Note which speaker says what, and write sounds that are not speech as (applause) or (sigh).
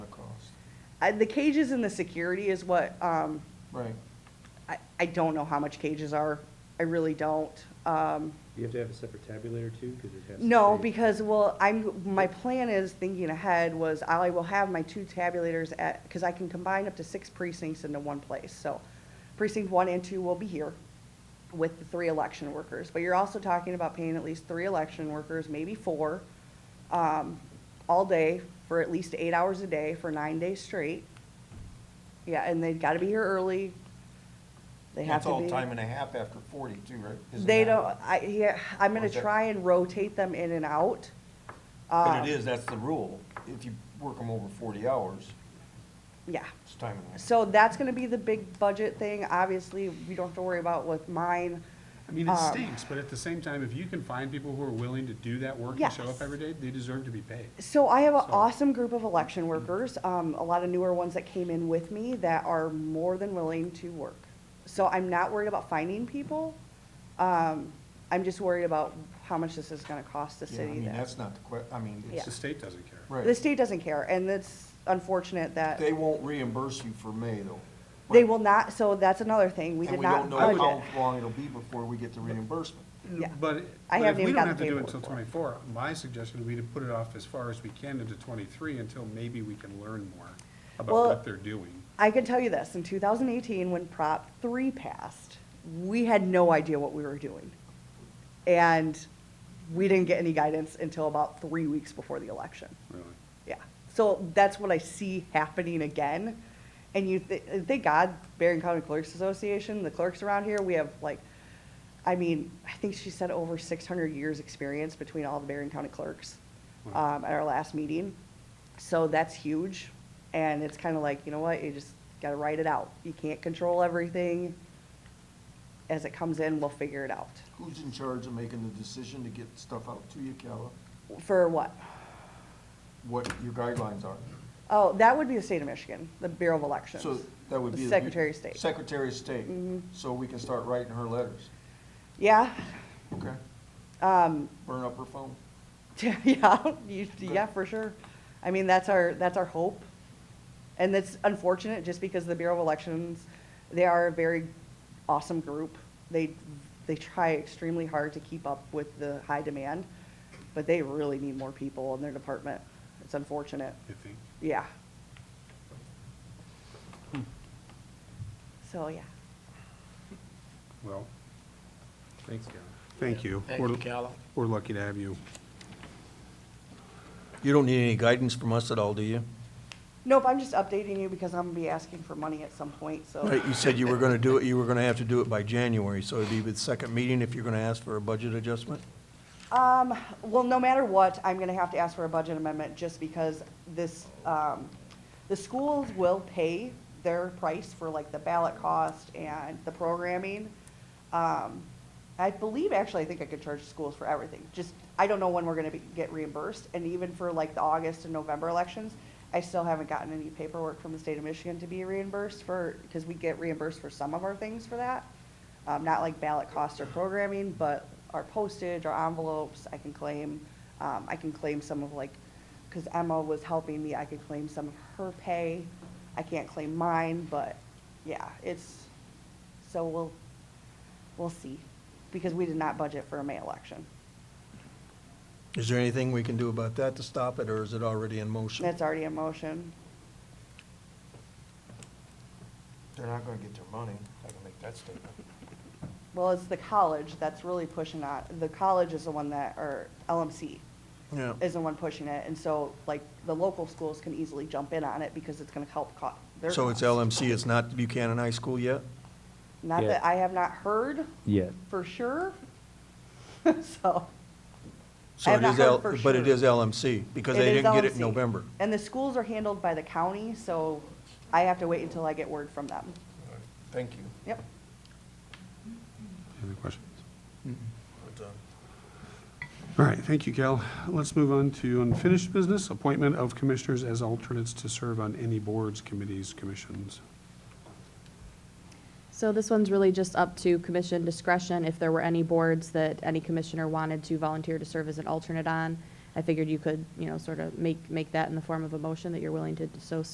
Speaker 1: I- The cages and the security is what, um,
Speaker 2: Right.
Speaker 1: I, I don't know how much cages are. I really don't. Um,
Speaker 3: You have to have a separate tabulator too, because it has. to
Speaker 1: No,
Speaker 3: say-
Speaker 1: because, well, I'm, my plan is, thinking ahead, was I will have my two tabulators at, because I can combine up to six precincts into one place. So precinct one and two will be here with the three election workers. But you're also talking about paying at least three election workers, maybe four, um, all day for at least eight hours a day for nine days straight. Yeah, and they've got to be here early. They have
Speaker 2: That's
Speaker 1: to be.
Speaker 2: all time and a half after forty too, right? Isn't
Speaker 1: They
Speaker 2: that-
Speaker 1: don't, I, yeah, I'm
Speaker 2: Or
Speaker 1: gonna
Speaker 2: is that-
Speaker 1: try and rotate them in and out.
Speaker 2: But
Speaker 1: Um,
Speaker 2: it is, that's the rule. If you work them over forty hours,
Speaker 1: Yeah,
Speaker 2: it's time and a half.
Speaker 1: so that's gonna be the big budget thing, obviously, we don't have to worry about with mine.
Speaker 4: I mean,
Speaker 1: Um,
Speaker 4: it stinks, but at the same time, if you can find people who are willing to do that work and show
Speaker 1: Yes.
Speaker 4: up every day, they deserve to be paid.
Speaker 1: So I have an
Speaker 4: So-
Speaker 1: awesome group of election workers, um, a lot of newer ones that came in with me that are more than willing to work. So I'm not worried about finding people, um, I'm just worried about how much this is gonna cost the
Speaker 2: Yeah, I
Speaker 1: city
Speaker 2: mean,
Speaker 1: there.
Speaker 2: that's not the que, I mean,
Speaker 1: Yeah.
Speaker 2: it's,
Speaker 4: The state doesn't care.
Speaker 1: The
Speaker 2: right.
Speaker 1: state doesn't care, and it's unfortunate that.
Speaker 2: They won't reimburse you for May though.
Speaker 1: They
Speaker 2: Right.
Speaker 1: will not, so that's another thing, we
Speaker 2: And
Speaker 1: did
Speaker 2: we
Speaker 1: not
Speaker 2: don't know
Speaker 1: budget.
Speaker 2: how long it'll be before we get the reimbursement.
Speaker 1: Yeah. I
Speaker 4: But, but if
Speaker 1: haven't
Speaker 4: we
Speaker 1: even
Speaker 4: don't
Speaker 1: gotten
Speaker 4: have to do it
Speaker 1: paperwork
Speaker 4: until
Speaker 1: for it.
Speaker 4: twenty-four, my suggestion would be to put it off as far as we can into twenty-three until maybe we can learn more about
Speaker 1: Well-
Speaker 4: what they're doing.
Speaker 1: I can tell you this, in two thousand eighteen, when Prop three passed, we had no idea what we were doing. And we didn't get any guidance until about three weeks before the election.
Speaker 4: Really.
Speaker 1: Yeah, so that's what I see happening again. And you, th- thank God, Barron County Clerks Association, the clerks around here, we have like, I mean, I think she said over six hundred years' experience between all the Barron County clerks,
Speaker 4: Wow.
Speaker 1: um, at our last meeting. So that's huge, and it's kinda like, you know what, you just gotta write it out. You can't control everything. As it comes in, we'll figure it out.
Speaker 2: Who's in charge of making the decision to get stuff out to you, Calla?
Speaker 1: For what?
Speaker 2: What your guidelines are?
Speaker 1: Oh, that would be the state of Michigan, the Bureau of Elections.
Speaker 2: So that would
Speaker 1: The
Speaker 2: be. the-
Speaker 1: Secretary of State. Mm-hmm.
Speaker 2: Secretary of State. So we can start writing her letters.
Speaker 1: Yeah,
Speaker 2: Okay.
Speaker 1: um, (laughs)
Speaker 2: Burn up her phone.
Speaker 1: yeah, you, yeah, for sure. I mean, that's our, that's our hope. And that's unfortunate, just because the Bureau of Elections, they are a very awesome group. They, they try extremely hard to keep up with the high demand, but they really need more people in their department. It's unfortunate,
Speaker 4: You think?
Speaker 1: yeah. So, yeah.
Speaker 4: Well,
Speaker 3: Thanks, Karen.
Speaker 4: thank you.
Speaker 5: Thank
Speaker 4: We're-
Speaker 5: you, Calla.
Speaker 4: We're lucky to have you.
Speaker 2: You don't need any guidance from us at all, do you?
Speaker 1: Nope, I'm just updating you because I'm gonna be asking for money at some point, so,
Speaker 2: Right, you said you were gonna do it, you were gonna have to do it by January, so it'd be the second meeting if you're gonna ask for a budget adjustment?
Speaker 1: um, well, no matter what, I'm gonna have to ask for a budget amendment just because this, um, the schools will pay their price for like the ballot cost and the programming. Um, I believe, actually, I think I could charge schools for everything, just, I don't know when we're gonna be, get reimbursed, and even for like the August and November elections, I still haven't gotten any paperwork from the state of Michigan to be reimbursed for, because we get reimbursed for some of our things for that. Um, not like ballot costs or programming, but our postage, our envelopes, I can claim, um, I can claim some of like, because Emma was helping me, I could claim some of her pay. I can't claim mine, but yeah, it's, so we'll, we'll see, because we did not budget for a May election.
Speaker 2: Is there anything we can do about that to stop it, or is it already in motion?
Speaker 1: That's already in motion.
Speaker 2: They're not gonna get their money, I can make that statement.
Speaker 1: Well, it's the college that's really pushing on, the college is the one that, or LMC
Speaker 2: Yeah.
Speaker 1: is the one pushing it, and so, like, the local schools can easily jump in on it because it's gonna help co- their
Speaker 2: So it's
Speaker 1: costs.
Speaker 2: LMC, it's not Buchanan High School yet?
Speaker 1: Not
Speaker 3: Yeah.
Speaker 1: that, I have not heard
Speaker 3: Yet.
Speaker 1: for sure, (laughs) so.
Speaker 2: So
Speaker 1: I have
Speaker 2: it
Speaker 1: not
Speaker 2: is
Speaker 1: heard
Speaker 2: L-
Speaker 1: for
Speaker 2: But it
Speaker 1: sure.
Speaker 2: is LMC, because they
Speaker 1: is
Speaker 2: didn't get it in
Speaker 1: LMC.
Speaker 2: November.
Speaker 1: And the schools are handled by the county, so I have to wait until I get word from them.
Speaker 2: Thank you.
Speaker 1: Yep.
Speaker 4: Any questions? All right, thank you, Cal. Let's move on to unfinished business, appointment of commissioners as alternates to serve on any boards, committees, commissions.
Speaker 6: So this one's really just up to commission discretion, if there were any boards that any commissioner wanted to volunteer to serve as an alternate on. I figured you could, you know, sort of make, make that in the form of a motion that you're willing to so